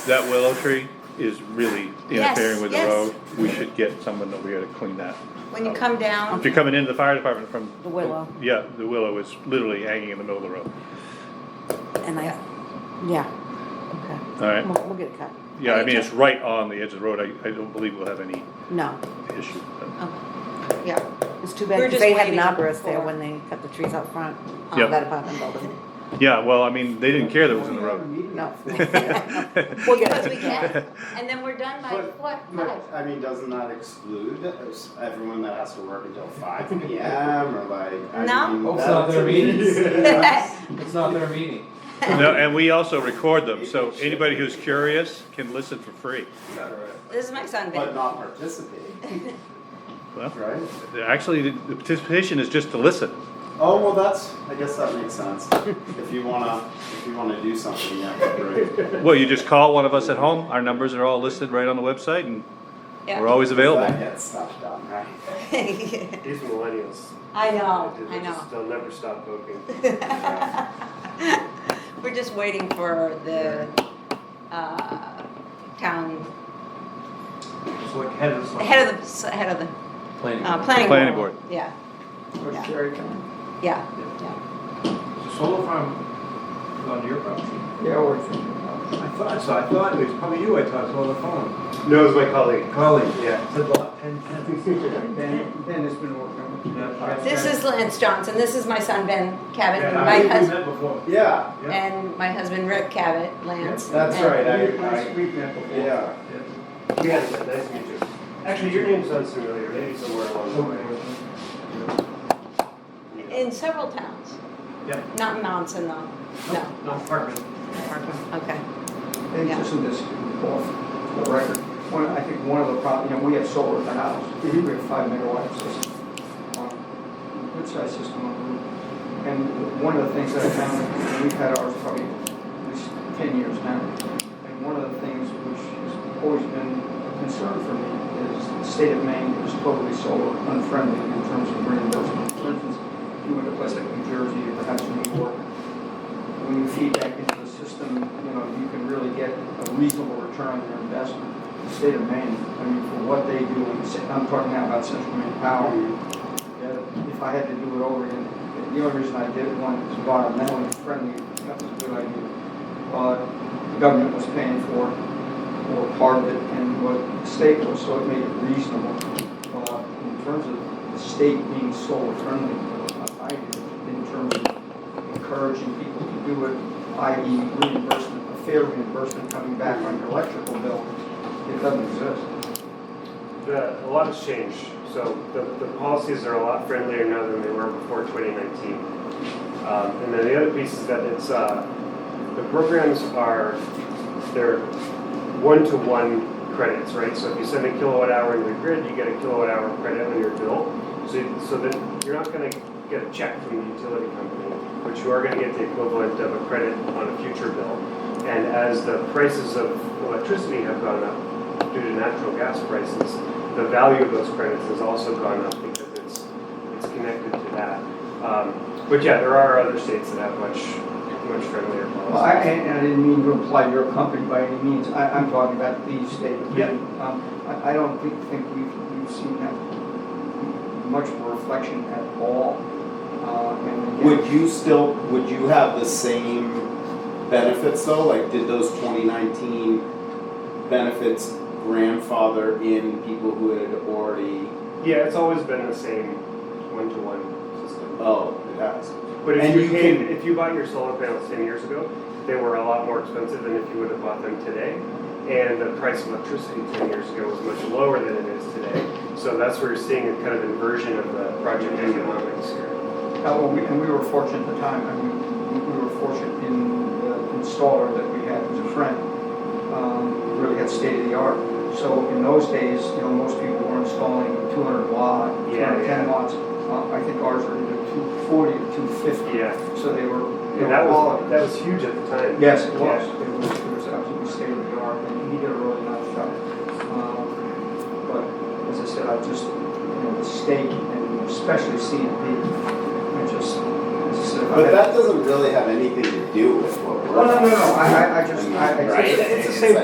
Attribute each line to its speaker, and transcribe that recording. Speaker 1: That willow tree is really
Speaker 2: Yes,
Speaker 1: interfering with the
Speaker 2: yes.
Speaker 1: road. We should get someone over here to clean that.
Speaker 2: When you
Speaker 1: out.
Speaker 2: come down,
Speaker 1: If you're coming into the fire department from.
Speaker 3: The willow.
Speaker 1: Yeah, the willow is literally hanging in the middle of the road.
Speaker 3: And I, yeah, okay.
Speaker 1: All right.
Speaker 3: We'll, we'll get it cut.
Speaker 1: Yeah, I mean, it's right on the edge of the road. I, I don't believe we'll have any
Speaker 3: No,
Speaker 1: issue. but-
Speaker 2: Okay. yeah,
Speaker 3: it's too
Speaker 2: We're
Speaker 3: bad, 'cause
Speaker 2: just
Speaker 3: they had an
Speaker 2: waiting
Speaker 3: arborist there
Speaker 2: for-
Speaker 3: when they cut the trees out front of
Speaker 1: Yep.
Speaker 3: that apartment building.
Speaker 1: Yeah, well, I mean, they didn't care that it was in the road.
Speaker 3: No.
Speaker 2: Well,
Speaker 3: We'll get
Speaker 2: because we
Speaker 3: it.
Speaker 2: can, and then we're done by
Speaker 4: But-
Speaker 2: what,
Speaker 4: but,
Speaker 2: five?
Speaker 4: I mean, doesn't that exclude us- everyone that has to work until five PM or like? I
Speaker 2: No.
Speaker 4: mean,
Speaker 5: Hope it's not
Speaker 4: that's-
Speaker 5: their meetings.
Speaker 4: Yeah.
Speaker 5: It's not their meeting.
Speaker 1: No, and we also record them, so anybody who's curious can listen for free.
Speaker 2: This is my son,
Speaker 4: But
Speaker 2: babe.
Speaker 4: not participate,
Speaker 1: Well,
Speaker 4: right?
Speaker 1: actually, the the participation is just to listen.
Speaker 4: Oh, well, that's, I guess that makes sense. If you wanna, if you wanna do something, yeah, right.
Speaker 1: Well, you just call one of us at home. Our numbers are all listed right on the website and we're
Speaker 2: Yeah.
Speaker 1: always available.
Speaker 4: That gets stuff done, right?
Speaker 6: These millennials.
Speaker 2: I know,
Speaker 6: they- they
Speaker 2: I know.
Speaker 6: just- They'll never stop cooking.
Speaker 2: We're just waiting for the, uh, town,
Speaker 5: It's like head of
Speaker 2: the
Speaker 5: something.
Speaker 2: head of the, head of the,
Speaker 5: Planning.
Speaker 2: uh, planning.
Speaker 1: Planning board.
Speaker 2: Yeah,
Speaker 5: Where's
Speaker 2: yeah.
Speaker 5: Jerry coming?
Speaker 2: yeah, yeah.
Speaker 5: The solar farm is on your property.
Speaker 7: Yeah, or something.
Speaker 5: I thought, so I thought, it was probably you I talked to on the phone.
Speaker 6: No, it's my colleague.
Speaker 5: Colleen.
Speaker 6: Yeah.
Speaker 5: Said lot ten ten.
Speaker 7: Ben, Ben has been working on it.
Speaker 2: This is Lance Johnson, this is my son Ben Cabot,
Speaker 6: Yeah,
Speaker 2: my
Speaker 6: I think we
Speaker 2: husband,
Speaker 6: met before.
Speaker 4: Yeah,
Speaker 6: Yeah.
Speaker 2: and my husband Rick Cabot, Lance.
Speaker 4: that's
Speaker 2: and-
Speaker 4: right,
Speaker 7: Yeah,
Speaker 4: I,
Speaker 7: last
Speaker 4: I,
Speaker 7: week, that before.
Speaker 4: yeah.
Speaker 6: Yeah, nice to meet you. Actually, your name sounds familiar, maybe somewhere along the way. Yeah.
Speaker 2: In several towns.
Speaker 6: Yeah.
Speaker 2: Not in Monson though, no.
Speaker 6: No, Parkman.
Speaker 2: Okay,
Speaker 7: And
Speaker 2: Yeah.
Speaker 7: just in this, off the record, one, I think one of the problems, you know, we have solar at the house. We have five megawatt system, on- good size system on the roof. And one of the things that I found, we've had ours probably at least ten years now. And one of the things which has always been a concern for me is the state of Maine is totally solar unfriendly in terms of reimbursement. For instance, if you went to a place like New Jersey or perhaps New York, when you feed back into the system, you know, you can really get a reasonable return on your investment. The state of Maine, I mean, for what they do, and se- I'm talking now about central Maine power, that if I had to do it over again, the only reason I did it, one, it was environmentally friendly, that was a good idea. But the government was paying for it, or part of it, and what the state was, so it made it reasonable. Uh, In terms of the state being solar friendly, I, in terms of encouraging people to do it, i.e. reimbursement, a fair reimbursement coming back on your electrical bill, it doesn't exist.
Speaker 6: The, a lot has changed, so the, the policies are a lot friendlier now than they were before 2019. Um, and then the other piece is that it's, uh, the programs are, they're one-to-one credits, right? So if you send a kilowatt hour into the grid, you get a kilowatt hour credit on your bill. So, you- so that you're not gonna get a check from the utility company, but you are gonna get the equivalent of a credit on a future bill. And as the prices of electricity have gone up due to natural gas prices, the value of those credits has also gone up because it's, it's connected to that. Um, But yeah, there are other states that have much, much friendlier
Speaker 7: Well, I,
Speaker 6: policies.
Speaker 7: and and I didn't mean to imply your company by any means, I, I'm talking about the state of
Speaker 6: Yeah.
Speaker 7: Maine. Um, I, I don't think, think we've, we've seen that much of a reflection at all. Uh, and again-
Speaker 4: Would you still, would you have the same benefits though? Like, did those twenty nineteen benefits grandfather in people who had already,
Speaker 6: Yeah, it's always been the same one-to-one system.
Speaker 4: oh, it has?
Speaker 6: But if
Speaker 4: And
Speaker 6: you
Speaker 4: you
Speaker 6: paid,
Speaker 4: can-
Speaker 6: if you bought your solar panels ten years ago, they were a lot more expensive than if you would have bought them today. And the price of electricity ten years ago was much lower than it is today. So that's where you're seeing a kind of inversion of the project economics here.
Speaker 7: Uh, well, we, and we were fortunate at the time, I mean, we were fortunate in the installer that we had was a friend, um, really had state of the art. So in those days, you know, most people were installing two hundred watt, two
Speaker 6: Yeah,
Speaker 7: hundred ten
Speaker 6: yeah.
Speaker 7: watts. Uh, I think ours were either two forty or two fifty.
Speaker 6: Yeah,
Speaker 7: So they were, you
Speaker 6: and that
Speaker 7: know,
Speaker 6: was,
Speaker 7: quality.
Speaker 6: that was huge at the time.
Speaker 7: Yes, it
Speaker 6: Yeah.
Speaker 7: was, it was, it was absolutely state of the art, and he did a really nice job. Um, But as I said, I just, you know, the state, and especially CMP, I just, as I said. I
Speaker 4: But
Speaker 7: had-
Speaker 4: that doesn't really have anything to do with what we're.
Speaker 7: Oh, no, no, no, I, I- I just, I. I-
Speaker 4: Right?
Speaker 7: it's-
Speaker 4: It's the same